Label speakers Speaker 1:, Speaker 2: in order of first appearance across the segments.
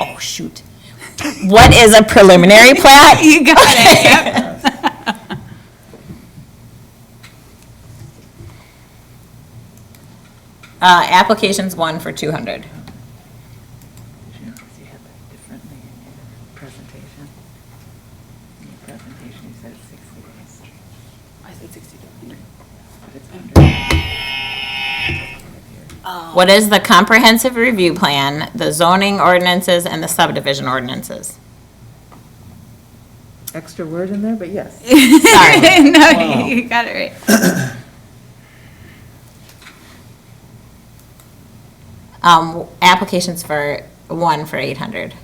Speaker 1: Oh, shoot. What is a preliminary plat?
Speaker 2: You got it, yep.
Speaker 1: Uh, application's one for two hundred.
Speaker 3: You know, 'cause you had that differently in your presentation. In your presentation, you said 60 days.
Speaker 2: I said 60
Speaker 3: But it's 100.
Speaker 2: Oh.
Speaker 1: What is the comprehensive review plan, the zoning ordinances, and the subdivision ordinances?
Speaker 3: Extra word in there, but yes.
Speaker 1: Sorry.
Speaker 2: No, you got it right.
Speaker 1: Um, applications for, one for eight hundred.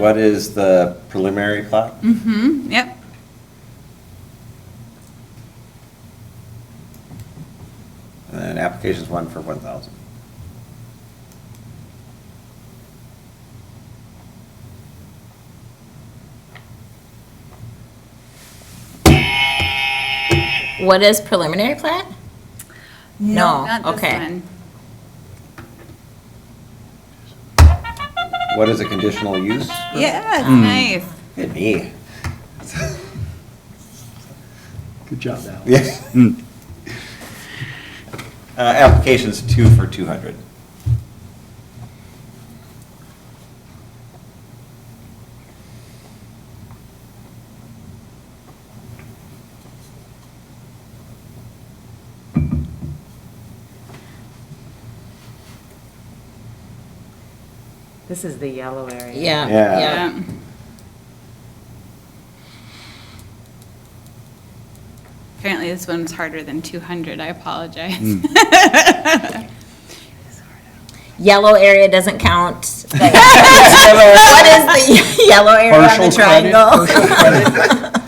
Speaker 4: What is the preliminary plat?
Speaker 2: Mm-hmm, yep.
Speaker 4: And then application's one for one thousand.
Speaker 1: What is preliminary plat? No,
Speaker 2: Not this
Speaker 1: okay. Mm.
Speaker 2: one.
Speaker 4: What is a conditional use?
Speaker 2: Yeah,
Speaker 1: Mm.
Speaker 2: it's nice.
Speaker 4: Hit me.
Speaker 5: Good job, Al.
Speaker 4: Yeah. Uh, application's two for two hundred.
Speaker 3: This is the yellow area.
Speaker 1: Yeah,
Speaker 4: Yeah.
Speaker 1: yeah.
Speaker 2: Yep. Apparently this one's harder than 200, I apologize.
Speaker 1: Yellow area doesn't count. What is the yellow area on the
Speaker 5: Partial credit,
Speaker 1: triangle?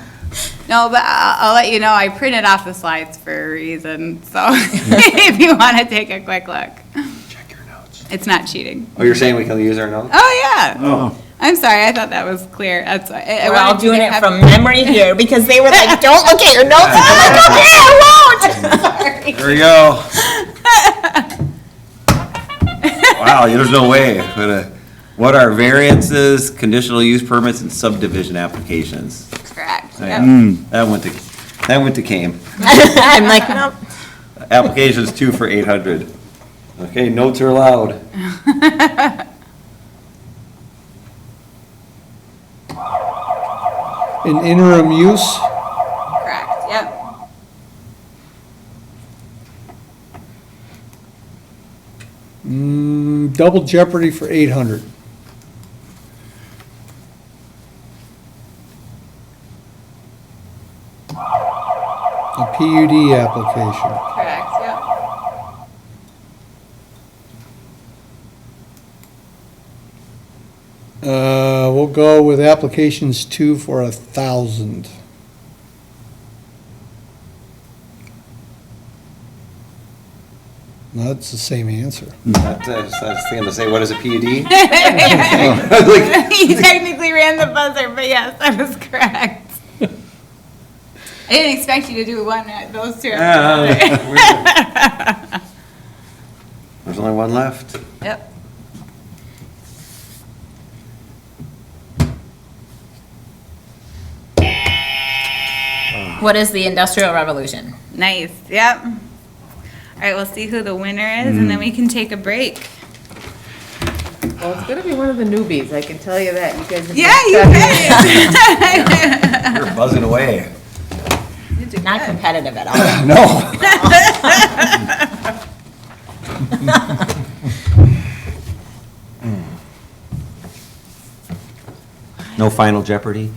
Speaker 2: No, but I'll, I'll let you know, I printed off the slides for a reason, so if you want to take a quick look,
Speaker 5: Check your notes.
Speaker 2: it's not cheating.
Speaker 4: Oh, you're saying we can use our notes?
Speaker 2: Oh, yeah.
Speaker 5: Oh,
Speaker 2: I'm sorry, I thought that was clear. That's, I- I
Speaker 1: We're all
Speaker 2: wanted you to
Speaker 1: doing it
Speaker 2: have-
Speaker 1: from memory here because they were like, don't look at your notes. And I'm like, okay, I won't.
Speaker 4: There we go. Wow, there's no way. What a- What are variances, conditional use permits, and subdivision applications?
Speaker 2: Correct,
Speaker 4: Oh,
Speaker 2: yep.
Speaker 4: yeah. That went to, that went to Kame.
Speaker 1: I'm like, nope.
Speaker 4: Applications two for eight hundred. Okay, notes are allowed.
Speaker 5: in interim use,
Speaker 2: Correct, yep.
Speaker 5: mm, double jeopardy for eight hundred. A PUD application.
Speaker 2: Correct, yep.
Speaker 5: Uh, we'll go with applications two for a thousand. That's the same answer.
Speaker 4: That's, uh, that's, that's the thing to say, what is a E PUD?
Speaker 2: He technically ran the buzzer, but yes, I was correct. I didn't expect you to do one, at those two.
Speaker 4: Yeah, yeah, yeah. There's only one left.
Speaker 2: Yep.
Speaker 1: What is the industrial revolution?
Speaker 2: Nice, yep. All right, we'll see who the winner is, and then we can take a break.
Speaker 3: Well, it's gonna be one of the newbies, I can tell you that. You guys have.
Speaker 2: Yeah, you bet.
Speaker 4: You're buzzing away.
Speaker 1: Not competitive at all.
Speaker 4: No. No final Jeopardy?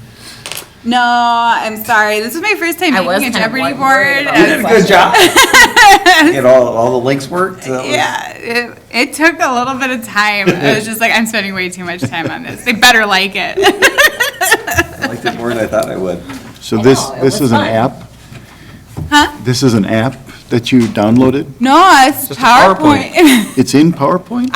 Speaker 2: No, I'm sorry. This is my first time
Speaker 1: I was
Speaker 2: making a
Speaker 1: kind of
Speaker 2: Jeopardy
Speaker 1: worried
Speaker 2: board.
Speaker 1: about
Speaker 2: I
Speaker 1: that.
Speaker 4: You
Speaker 2: was-
Speaker 4: did a good job. Get all, all the links worked? That was-
Speaker 2: Yeah, it, it took a little bit of time. I was just like, I'm spending way too much time on this. They better like it.
Speaker 4: I liked it more than I thought I would.
Speaker 6: So this,
Speaker 1: know, Oh, it
Speaker 6: this
Speaker 1: was
Speaker 6: is an
Speaker 1: fun.
Speaker 6: app?
Speaker 2: Huh?
Speaker 6: This is an app that you downloaded?
Speaker 2: No, it's
Speaker 6: Just a
Speaker 2: PowerPoint.
Speaker 6: It's in PowerPoint?